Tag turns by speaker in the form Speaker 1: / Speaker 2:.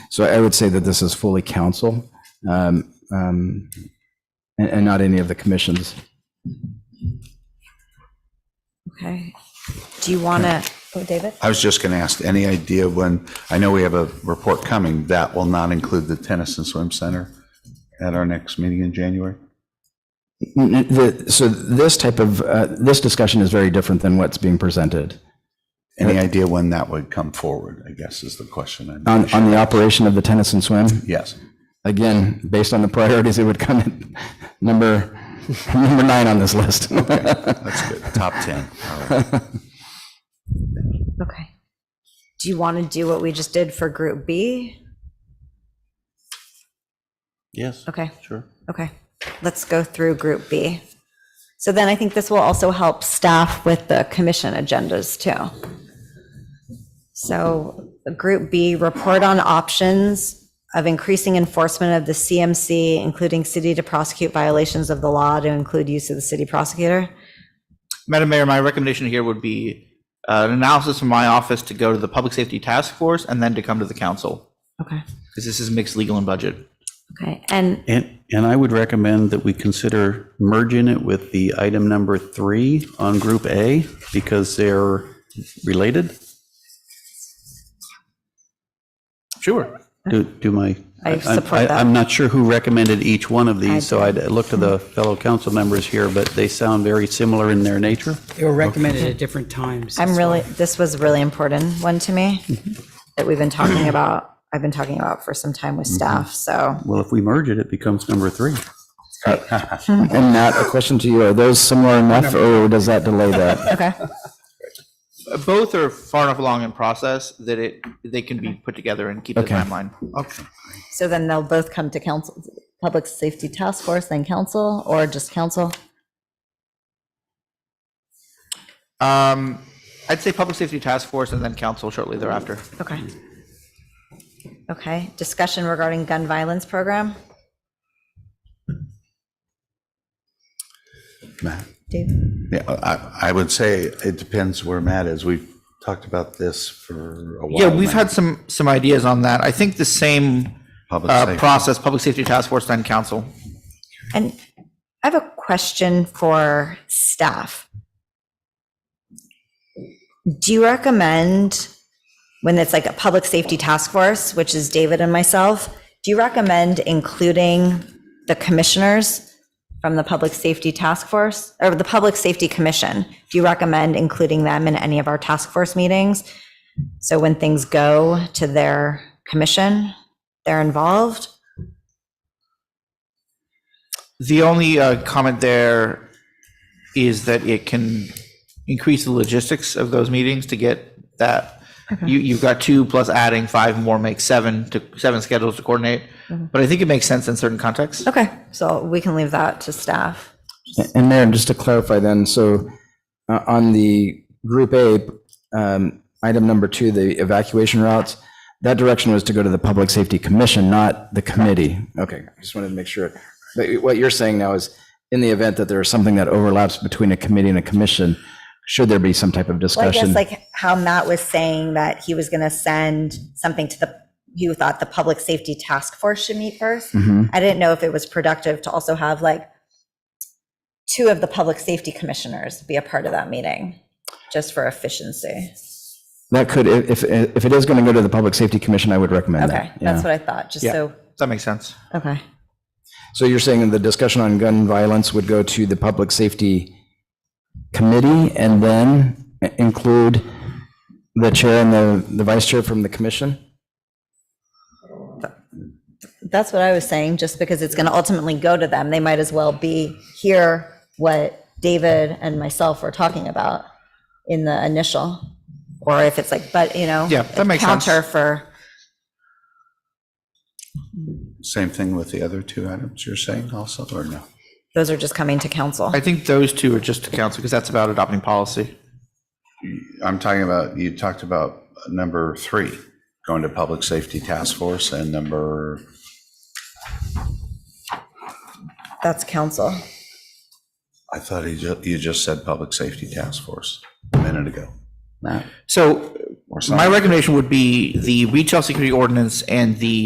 Speaker 1: So I would say that this is fully council um, um, and and not any of the commissions.
Speaker 2: Okay. Do you want to, oh, David?
Speaker 3: I was just going to ask, any idea when, I know we have a report coming, that will not include the tennis and swim center at our next meeting in January?
Speaker 1: N- n- the- So this type of, uh, this discussion is very different than what's being presented.
Speaker 3: Any idea when that would come forward, I guess is the question. I'm-
Speaker 1: On on the operation of the tennis and swim,
Speaker 3: Yes.
Speaker 1: again, based on the priorities, it would come at number, number nine on this list.
Speaker 3: That's good. Top 10. All right.
Speaker 2: Okay. Do you want to do what we just did for Group B?
Speaker 4: Yes.
Speaker 2: Okay.
Speaker 4: Sure.
Speaker 2: Okay, let's go through Group B. So then I think this will also help staff with the commission agendas too. So Group B, report on options of increasing enforcement of the CMC, including city to prosecute violations of the law to include use of the city prosecutor.
Speaker 4: Madam Mayor, my recommendation here would be uh, an analysis from my office to go to the Public Safety Task Force and then to come to the council,
Speaker 2: Okay,
Speaker 4: because this is mixed legal and budget.
Speaker 2: okay, and,
Speaker 5: And, and I would recommend that we consider merging it with the item number three on Group A because they're related.
Speaker 4: Sure.
Speaker 5: Do, do my.
Speaker 2: I support that.
Speaker 5: I'm not sure who recommended each one of these, so
Speaker 2: I
Speaker 5: I'd look to the fellow council members here, but they sound very similar in their nature.
Speaker 6: They were recommended at different times.
Speaker 2: I'm really, this was a really important one to me that we've been talking about, I've been talking about for some time with staff, so.
Speaker 5: Well, if we merge it, it becomes number three.
Speaker 1: And Matt, a question to you, are those similar enough or does that delay that?
Speaker 2: Okay.
Speaker 4: Both are far enough along in process that it, they can be put together and keep the
Speaker 1: Okay.
Speaker 4: timeline.
Speaker 3: Okay.
Speaker 2: So then they'll both come to council, Public Safety Task Force, then council, or just council?
Speaker 4: Um, I'd say Public Safety Task Force and then council shortly thereafter.
Speaker 2: Okay. Okay, discussion regarding gun violence program?
Speaker 3: Matt?
Speaker 2: Dave?
Speaker 3: Yeah, I, I would say it depends where Matt is. We've talked about this for a while.
Speaker 4: Yeah, we've
Speaker 3: now.
Speaker 4: had some, some ideas on that. I think the same
Speaker 3: Public
Speaker 4: uh,
Speaker 3: safety.
Speaker 4: process, Public Safety Task Force, then council.
Speaker 2: And I have a question for staff. Do you recommend, when it's like a public safety task force, which is David and myself, do you recommend including the commissioners from the public safety task force or the public safety commission? Do you recommend including them in any of our task force meetings? So when things go to their commission, they're involved?
Speaker 4: The only uh, comment there is that it can increase the logistics of those meetings to get that. You, you've got two plus adding five more makes seven to seven schedules to coordinate. But I think it makes sense in certain contexts.
Speaker 2: Okay, so we can leave that to staff.
Speaker 1: And Mayor, just to clarify then, so uh, on the Group A, um, item number two, the evacuation routes, that direction was to go to the Public Safety Commission, not the committee. Okay, I just wanted to make sure. But what you're saying now is, in the event that there is something that overlaps between a committee and a commission, should there be some type of
Speaker 2: Well, I guess
Speaker 1: discussion?
Speaker 2: like how Matt was saying that he was going to send something to the, you thought the public safety task force should meet first.
Speaker 1: Mhm.
Speaker 2: I didn't know if it was productive to also have like two of the public safety commissioners be a part of that meeting, just for efficiency.
Speaker 1: That could, if, if if it is going to go to the Public Safety Commission, I would recommend that.
Speaker 2: Okay, that's
Speaker 1: yeah.
Speaker 2: what I thought, just
Speaker 4: Yeah.
Speaker 2: so,
Speaker 4: That makes sense.
Speaker 2: okay.
Speaker 1: So you're saying that the discussion on gun violence would go to the Public Safety Committee and then include the chair and the, the vice chair from the commission?
Speaker 2: That's what I was saying, just because it's going to ultimately go to them. They might as well be, hear what David and myself were talking about in the initial. Or if it's like, but, you know.
Speaker 4: Yeah, that makes sense.
Speaker 2: Counter for,
Speaker 3: Same thing with the other two items you're saying also, or no?
Speaker 2: those are just coming to council.
Speaker 4: I think those two are just to council because that's about adopting policy.
Speaker 3: I'm talking about, you talked about number three, going to Public Safety Task Force and number,
Speaker 2: That's council.
Speaker 3: I thought you just, you just said Public Safety Task Force a minute ago.
Speaker 4: So my recommendation would be the retail security ordinance and the